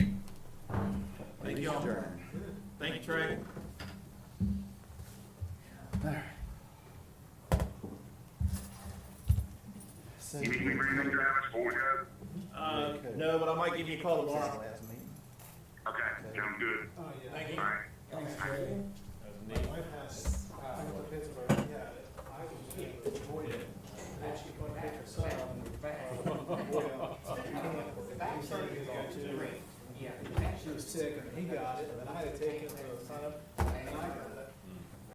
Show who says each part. Speaker 1: y'all.
Speaker 2: adjourn.
Speaker 1: Thank you, Trey.
Speaker 3: You need me to bring them drivers before we go?
Speaker 1: Uh, no, but I might give you a call tomorrow.
Speaker 3: Okay, sounds good.
Speaker 1: Thank you.
Speaker 3: All right.
Speaker 4: Thanks, Trey. My wife has, I went to Pittsburgh, yeah, I was able to avoid it, and then she went to pick her son up and we She was sick, and he got it, and then I had to take him to the son,